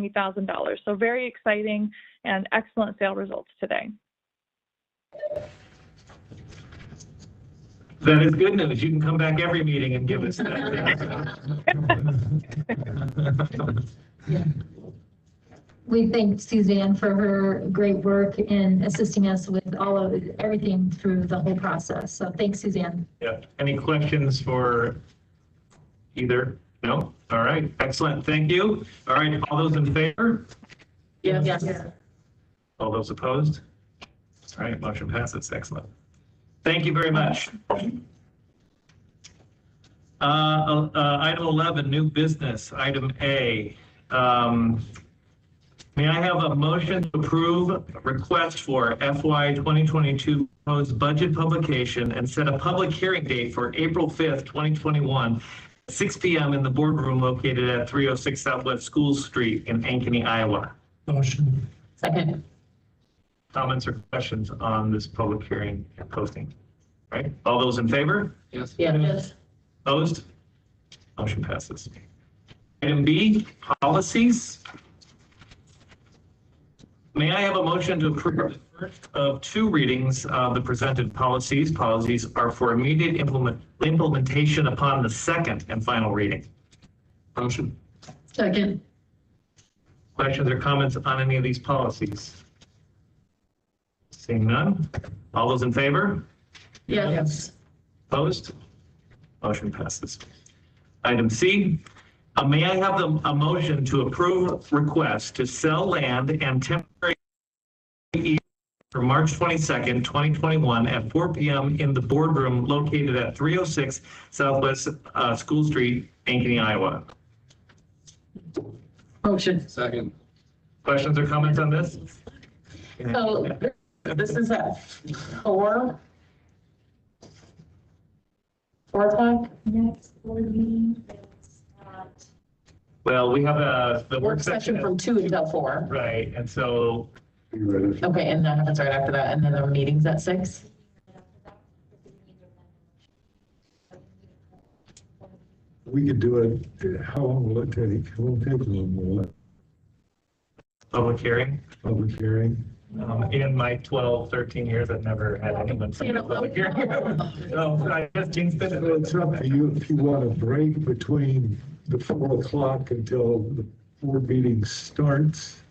$90,000. So very exciting and excellent sale results today. That is good news. You can come back every meeting and give us that. We thank Suzanne for her great work in assisting us with all of, everything through the whole process. So thanks, Suzanne. Yeah. Any questions for either? No? All right, excellent. Thank you. All right, all those in favor? Yes. All those opposed? All right, motion passes. Excellent. Thank you very much. Uh, uh, Item 11, new business, item A. Um, May I have a motion to approve request for FY 2022 proposed budget publication and set a public hearing date for April 5th, 2021, 6 PM in the boardroom located at 306 Southwest School Street in Ankeny, Iowa? Motion. Second. comments or questions on this public hearing and posting? Right? All those in favor? Yes. Yes. Opposed? Motion passes. Item B, policies. May I have a motion to approve the first of two readings of the presented policies? Policies are for immediate implement, implementation upon the second and final reading. Motion. Second. Questions or comments on any of these policies? Seeing none? All those in favor? Yes. Opposed? Motion passes. Item C, uh, may I have the- a motion to approve request to sell land and temporary easement for March 22nd, 2021 at 4 PM in the boardroom located at 306 Southwest uh, School Street, Ankeny, Iowa? Motion. Second. Questions or comments on this? So this is at four. Four o'clock? Next board meeting is at Well, we have uh, the Work session from two until four. Right, and so Okay, and that happens right after that, and then the meeting's at six? We could do it, how long will it take? It won't take long, will it? public hearing. Public hearing? Um, In my 12, 13 years, I've never had anyone say a public hearing. So I guess James did Well, It's up to it. you if you want a break between the four o'clock until the board meeting starts.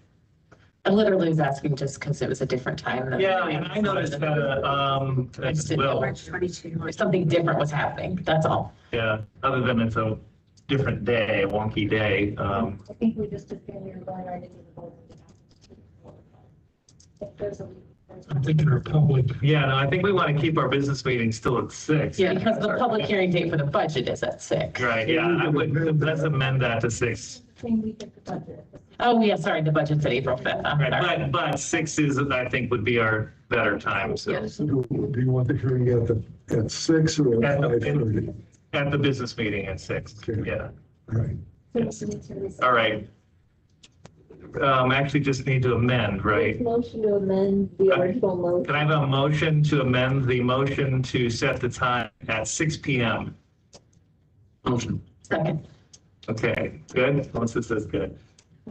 I literally was asking just because it was a different time. than- Yeah, and I noticed that, uh, um, I as just didn't know well, where- Something different was happening, that's all. yeah, other than it's a different day, a wonky day. um, I think we just assumed we were going right into the board. meeting. If there's a. I'm thinking our public. Yeah, no, I think we want to keep our business meeting still at six. Yeah, because the public hearing date for the budget is at six. Right, yeah, I would, let's amend that to six. Same week as the budget. Oh, yeah, sorry, the budget's at April fifth. I'm Right, sorry. but, but six is, I think, would be our better time, so, So do do you want the hearing at the, at six or at At the- five thirty? at the business meeting at six, Okay. yeah. Right. Yes. So we need to reset. All right. Um, actually just need to amend, right? Motion to amend the Okay. original motion. Can I have a motion to amend the motion to set the time at six P M? Motion. Second, Okay, good. Melissa says good.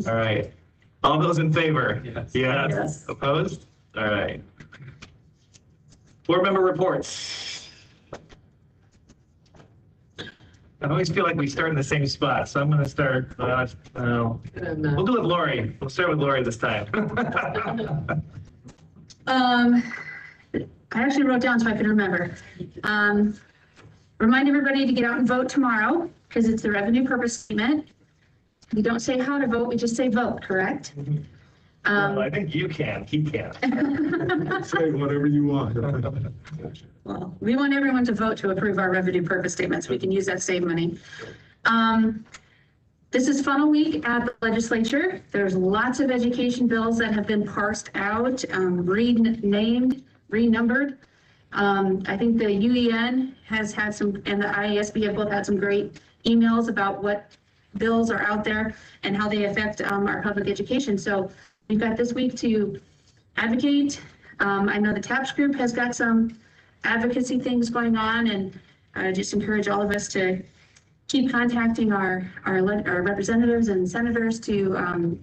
All right. All those in favor? Yes. Yes. Yes. Opposed? All right. Board member reports. I always feel like we start in the same spot, so I'm going to start, uh, uh, we'll do it with Lori. We'll start with Lori this time. Um, I actually wrote down so I could remember. Um, remind everybody to get out and vote tomorrow because it's the revenue purpose statement. We don't say how to vote, we just say vote, correct? Well, I Um, think you can, he can. Say whatever you want. well, we want everyone to vote to approve our revenue purpose statements. We can use that save money. Um, this is funnel week at the legislature. There's lots of education bills that have been parsed out, um, renamed, renumbered. Um, I think the UEN has had some, and the IASB have both had some great emails about what bills are out there and how they affect, um, our public education. So we've got this week to advocate. Um, I know the TAPS group has got some advocacy things going on and I just encourage all of us to keep contacting our, our, le- our representatives and senators to, um,